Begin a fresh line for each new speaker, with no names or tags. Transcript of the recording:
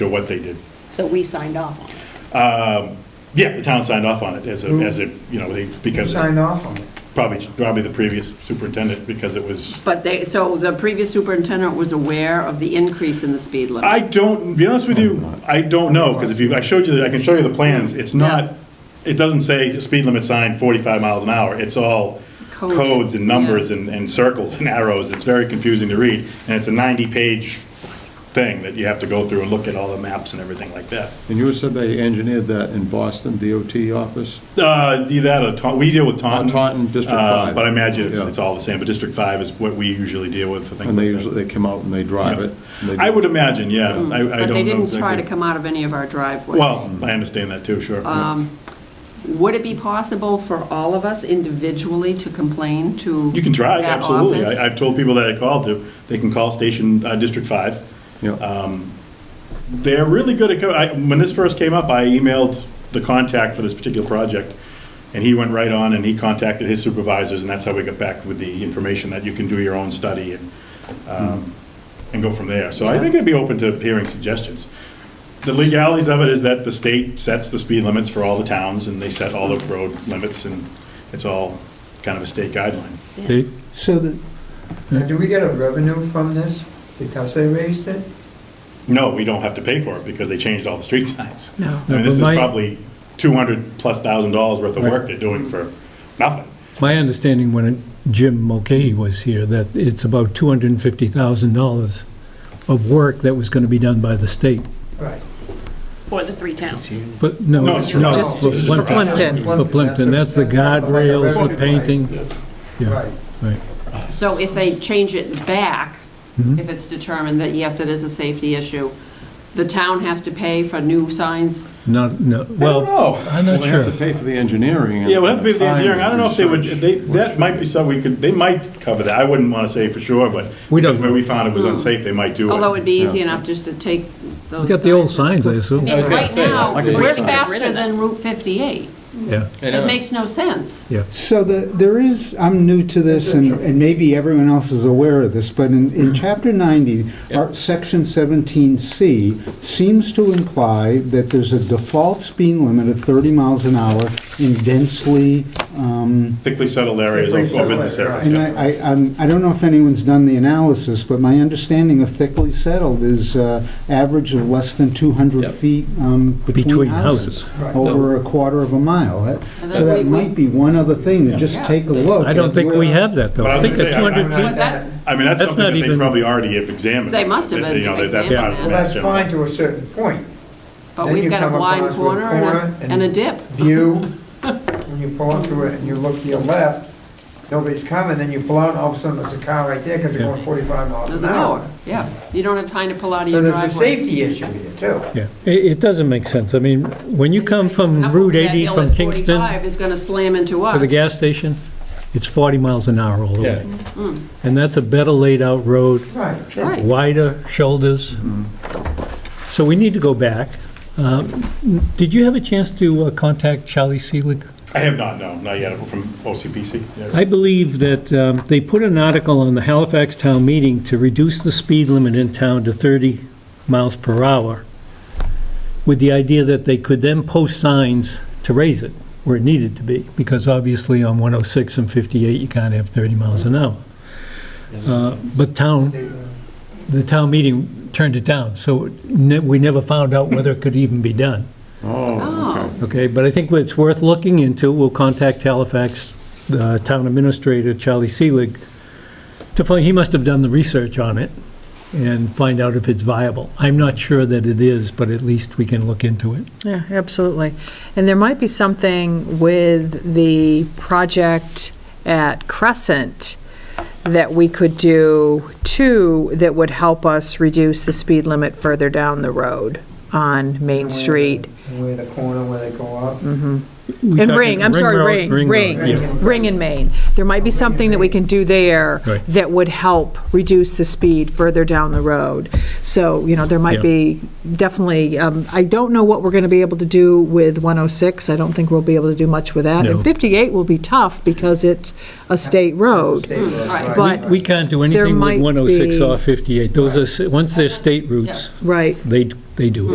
to what they did.
So we signed off on it.
Yeah, the town signed off on it as a,
Mm.
as a, you know, they- because,
Sign off on it.
probably, probably the previous superintendent, because it was
But they, so the previous superintendent was aware of the increase in the speed limit?
I don't, to be honest with you, I don't know, because if you, I showed you, the- I can show you the plans, it's
Yeah.
not, it doesn't say speed limit sign 45 miles an hour, it's all
Coded,
codes and
yeah.
numbers and, and circles and arrows, it's very confusing to read, and it's a 90-page thing that you have to go through and look at all the maps and everything like that.
And you said they engineered that in Boston DOT office?
Uh, either that or Taunton, we deal with Taunton.
Taunton, District
uh,
Five.
But I imagine it's,
Yeah.
it's all the same, but District 5 is what we usually deal with for things
And they
like that.
usually, they come out and they drive
Yeah.
it? and they do-
I would imagine, yeah, I, I don't know.
Mm. But they didn't try to
exactly.
come out of any of our driveways.
Well, I understand that too, sure.
Um, Would it be possible for all of us individually to complain to?
You can try,
that
absolutely.
office?
I- I've told people that I called to, they can call Station uh, District 5.
Yeah,
They're really good at, co- I- when this first came up, I emailed the contact for this particular project, and he went right on and he contacted his supervisors, and that's how we got back with the information that you can do your own study and, um, and go from there. So I think I'd be open to hearing suggestions. The legalities of it is that the state sets the speed limits for all the towns, and they set all the road limits, and it's all kind of a state guideline.
So the,
Now, do we get a revenue from this because they raised it?
No, we don't have to pay for it because they changed all the street signs.
No.
I mean, this is
No, but my-
probably 200 plus thousand dollars worth of work
Right.
they're doing for nothing.
My understanding when Jim Mulcahy was here, that it's about $250,000 of work that was going to be done by the state.
Right.
for the three towns.
But no,
No,
no,
it's for us.
for
This is for us.
Plimpton, for Plimpton, that's the guardrails, the painting. Yeah,
Right.
right.
So if they change it back,
Mm-hmm.
if it's determined that, yes, it is a safety issue, the town has to pay for new signs?
Not, no, well,
know.
I'm
Well,
not
they have to
sure.
pay for the engineering. and
Yeah, we'll have to pay for the
time
engineering. I don't know if they would,
research.
they, that might be something we could, they might cover that. I wouldn't want to say for sure, but
We
because
don't
where
know.
we found it was unsafe, they might do it.
Although it'd be easy
Yeah.
enough just to take those.
We got the old signs, I
I
assume.
mean, right now,
I could
we're
do something.
faster than Route 58.
Yeah,
It makes no sense.
yeah.
so the, there is, I'm new to this, and, and maybe everyone else is aware of this, but in, in chapter 90, our, section 17C seems to imply that there's a default speed limit of 30 miles an hour in densely, um,
Thickly settled areas
Thickly
or- or
settled,
business
right.
areas.
and
yeah.
I, I, I'm- I don't know if anyone's done the analysis, but my understanding of thickly settled is, uh, average of less than 200
Yep.
feet, um,
Between
between houses.
houses.
Right.
over a quarter of a mile. That-
And
So
that's
that
the-
might be one other thing, to just take a look.
I don't think we have that, though.
But I
I
was
think
gonna
the
say, I- I-
200 feet,
But that,
I mean, that's
That's
something that
not
they
even-
probably already have examined.
They must have
You know,
been
that- that's part of
examined
the
Well, that's
general-
fine to a certain point.
but
Then
we've
you
got a
come
blind
across with
corner and a, and a dip.
View, when you pull up to it and you look to your left, nobody's coming, then you pull out, and all of a sudden there's a car right there because they're going 45 miles
There's
an
an
hour.
hour, yeah. You don't have time to pull out of
So
your
there's a
driveway.
safety issue here too.
yeah. It, it doesn't make sense. I mean, when you come from
Up
Route
that
80
hill
from
at
Kingston
45 is gonna slam into us.
to the gas station, it's 40 miles an hour all the way. And that's a better laid-out road.
Right.
Right.
wider shoulders. So we need to go back. Um, Did you have a chance to uh, contact Charlie Seelig?
I have not, no, not yet, from OCPC. yeah.
I believe that um, they put an article on the Halifax Town Meeting to reduce the speed limit in town to 30 miles per hour, with the idea that they could then post signs to raise it where it needed to be, because obviously on 106 and 58, you can't have 30 miles an hour. Uh, But town the town meeting turned it down, so ne- we never found out whether it could even be done,
Oh, okay.
Oh.
okay? But I think it's worth looking into. We'll contact Halifax, uh town administrator, Charlie Seelig, to find, he must have done the research on it and find out if it's viable. I'm not sure that it is, but at least we can look into it.
Yeah, absolutely. And there might be something with the project at Crescent that we could do too, that would help us reduce the speed limit further down the road on Main Street.
Where the corner where they go up.
We
And
talking
Ring, I'm sorry,
Road-
Ring,
Ring.
Ring,
Road, yeah.
Ring and Main. There might be something that we can do there
Right.
that would help reduce the speed further down the road. So, you know, there
Yeah.
might be, definitely, um, I don't know what we're going to be able to do with 106. I don't think we'll be able to do much with that.
No.
And 58 will be tough because it's a state road.
State road,
right.
right.
But-
We can't do anything
might
with
be-
106 or 58. Those are, s- once they're state routes,
Right.
they, they do it.